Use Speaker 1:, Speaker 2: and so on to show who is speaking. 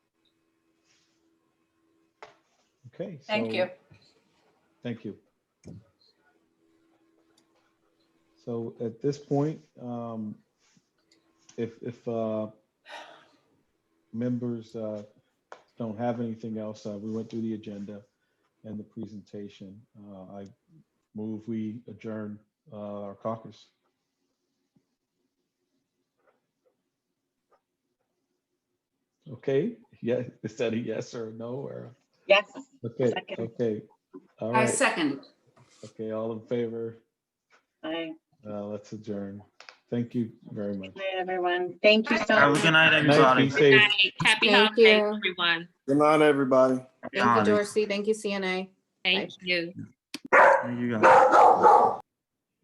Speaker 1: Okay.
Speaker 2: Thank
Speaker 1: so-
Speaker 2: you.
Speaker 1: Thank you. So at this point, um, if, if, uh, members, uh, don't have anything else, uh, we went through the agenda and the presentation. Uh, I move we adjourn, uh, our caucus. Okay, yeah, is that a yes or a no or?
Speaker 3: Yes.
Speaker 1: Okay,
Speaker 3: Second.
Speaker 1: okay. All
Speaker 2: I
Speaker 1: right.
Speaker 2: second.
Speaker 1: Okay, all in favor,
Speaker 3: Bye,
Speaker 1: uh, let's adjourn. Thank you very much.
Speaker 3: Bye, everyone. Thank you so
Speaker 4: Have a
Speaker 3: much.
Speaker 4: good night,
Speaker 1: Night,
Speaker 4: everybody.
Speaker 1: be
Speaker 5: Good
Speaker 1: safe.
Speaker 5: night. Happy
Speaker 6: Thank
Speaker 5: holidays,
Speaker 6: you.
Speaker 5: everyone.
Speaker 7: Good night, everybody.
Speaker 6: Thank you,
Speaker 4: Holidays.
Speaker 6: Dorsey. Thank you, CNA.
Speaker 5: Thank you.
Speaker 4: There you go.